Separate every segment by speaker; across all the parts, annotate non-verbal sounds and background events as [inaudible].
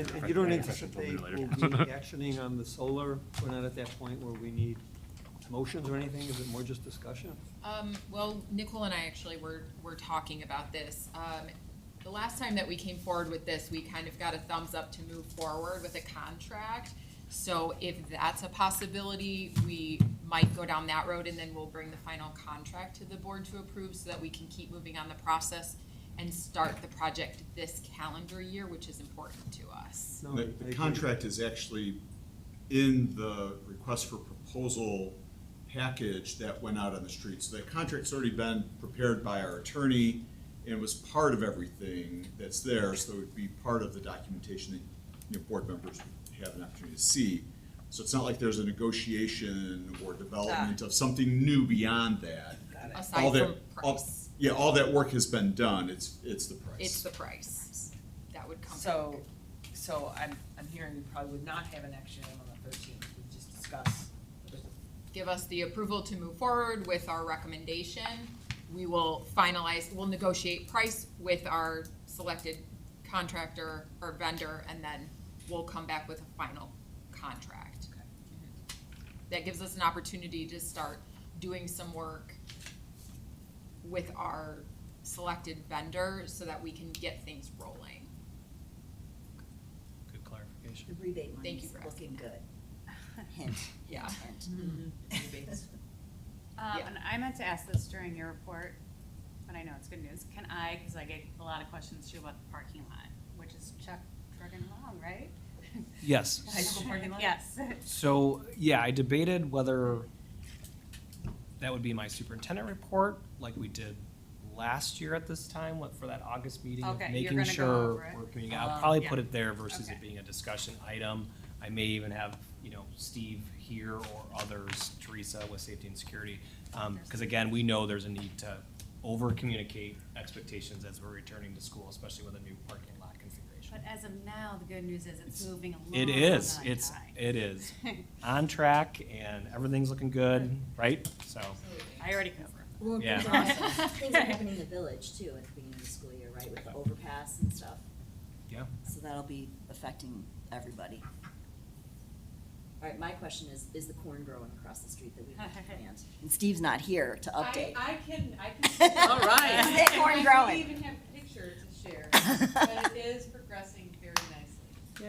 Speaker 1: And and you don't
Speaker 2: Yeah, yeah. Question
Speaker 1: anticipate
Speaker 2: for
Speaker 1: we'll
Speaker 2: later.
Speaker 1: be actioning on the solar? We're not at that point where we need motions or anything? Is it more just discussion?
Speaker 3: Um, well, Nicole and I actually were, were talking about this. Um, the last time that we came forward with this, we kind of got a thumbs up to move forward with a contract. So if that's a possibility, we might go down that road and then we'll bring the final contract to the board to approve so that we can keep moving on the process and start the project this calendar year, which is important to us.
Speaker 1: No, I- I
Speaker 4: The
Speaker 1: agree.
Speaker 4: the contract is actually in the request for proposal package that went out on the street. So that contract's already been prepared by our attorney and was part of everything that's there, so it would be part of the documentation that, you know, board members would have an opportunity to see. So it's not like there's a negotiation or development of something new beyond that. All
Speaker 3: Aside
Speaker 4: that,
Speaker 3: from
Speaker 4: all-
Speaker 3: price,
Speaker 4: Yeah, all that work has been done, it's, it's the price.
Speaker 3: it's the price that would come.
Speaker 5: So, so I'm, I'm hearing we probably would not have an action item on the thirteenth, we just discuss.
Speaker 3: give us the approval to move forward with our recommendation. We will finalize, we'll negotiate price with our selected contractor or vendor, and then we'll come back with a final contract.
Speaker 5: Okay.
Speaker 3: That gives us an opportunity to start doing some work with our selected vendor so that we can get things rolling.
Speaker 2: Good clarification.
Speaker 6: The rebate
Speaker 3: Thank
Speaker 6: money's
Speaker 3: you for
Speaker 6: looking
Speaker 3: asking
Speaker 6: good.
Speaker 7: [laughs]
Speaker 3: [laughs]
Speaker 6: Hint,
Speaker 3: Yeah.
Speaker 6: hint.
Speaker 7: Mm-hmm. Um,
Speaker 3: Yeah.
Speaker 7: and I meant to ask this during your report, but I know it's good news. Can I, because I get a lot of questions too about the parking lot, which is Chuck Jordan Long, right?
Speaker 8: Yes.
Speaker 7: High school parking lot? [laughs] Yes.
Speaker 8: So, yeah, I debated whether that would be my superintendent report, like we did last year at this time, what, for that August meeting of
Speaker 7: Okay, you're
Speaker 8: making
Speaker 7: gonna go over
Speaker 8: sure
Speaker 7: it.
Speaker 8: we're coming out.
Speaker 7: Um,
Speaker 8: Probably
Speaker 7: yeah.
Speaker 8: put it there versus it
Speaker 7: Okay.
Speaker 8: being a discussion item. I may even have, you know, Steve here or others, Teresa with safety and security. Um, cause again, we know there's a need to over-communicate expectations as we're returning to school, especially with a new parking lot configuration.
Speaker 7: But as of now, the good news is it's
Speaker 8: It's-
Speaker 7: moving along.
Speaker 8: It is,
Speaker 7: on
Speaker 8: it's,
Speaker 7: time.
Speaker 8: it is on track and everything's looking good, right? So,
Speaker 7: I already covered.
Speaker 6: Well,
Speaker 8: Yeah.
Speaker 6: there's
Speaker 3: [laughs]
Speaker 6: also, things are happening in the village too at the beginning of the school year, right, with the overpass and stuff.
Speaker 8: yeah.
Speaker 6: So that'll be affecting everybody. All right, my question is, is the corn growing across the street that we have to
Speaker 3: [laughs]
Speaker 6: plant? And Steve's not here to update.
Speaker 9: I, I can, I
Speaker 5: [laughs]
Speaker 9: can.
Speaker 5: All right.
Speaker 6: Is that corn
Speaker 9: I
Speaker 6: growing?
Speaker 9: don't even have a picture to share,
Speaker 6: [laughs]
Speaker 9: but it is progressing very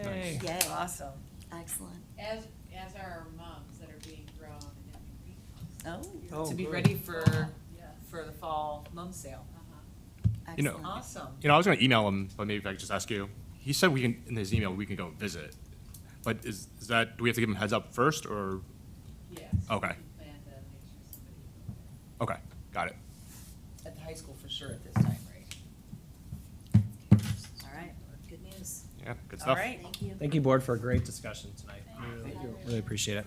Speaker 9: nicely,
Speaker 8: Yay.
Speaker 6: Yay,
Speaker 5: Awesome.
Speaker 6: excellent.
Speaker 9: as, as are our mums that are being grown and having greenhouses.
Speaker 6: Oh,
Speaker 1: Oh,
Speaker 5: To be
Speaker 1: good.
Speaker 5: ready for,
Speaker 9: Yes,
Speaker 5: for the fall mum sale.
Speaker 9: uh-huh.
Speaker 2: You know-
Speaker 6: excellent.
Speaker 5: Awesome.
Speaker 2: You know, I was gonna email him, but maybe if I could just ask you. He said we can, in his email, we can go visit. But is, is that, do we have to give him heads up first or,
Speaker 9: Yes. we
Speaker 2: Okay.
Speaker 9: can Plan to make sure somebody will go there.
Speaker 2: okay, got it.
Speaker 5: At the high school for sure at this time, right?
Speaker 6: All right, good news.
Speaker 2: Yeah, good
Speaker 5: All
Speaker 2: stuff.
Speaker 5: right,
Speaker 6: Thank you.
Speaker 8: Thank you, board, for a great discussion tonight.
Speaker 5: Thank you.
Speaker 8: Really appreciate it.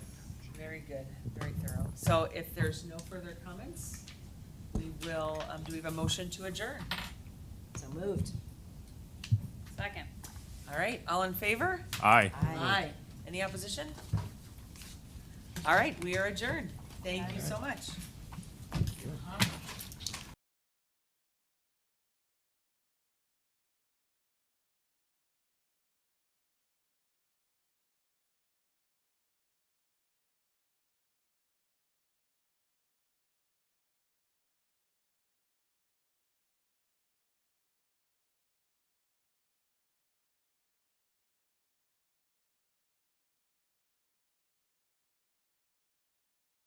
Speaker 5: very good, very thorough. So if there's no further comments, we will, um, do we have a motion to adjourn?
Speaker 6: So moved.
Speaker 7: Second.
Speaker 5: All right, all in favor?
Speaker 2: Aye.
Speaker 5: Aye. Any opposition? All right, we are adjourned. Thank you so much. All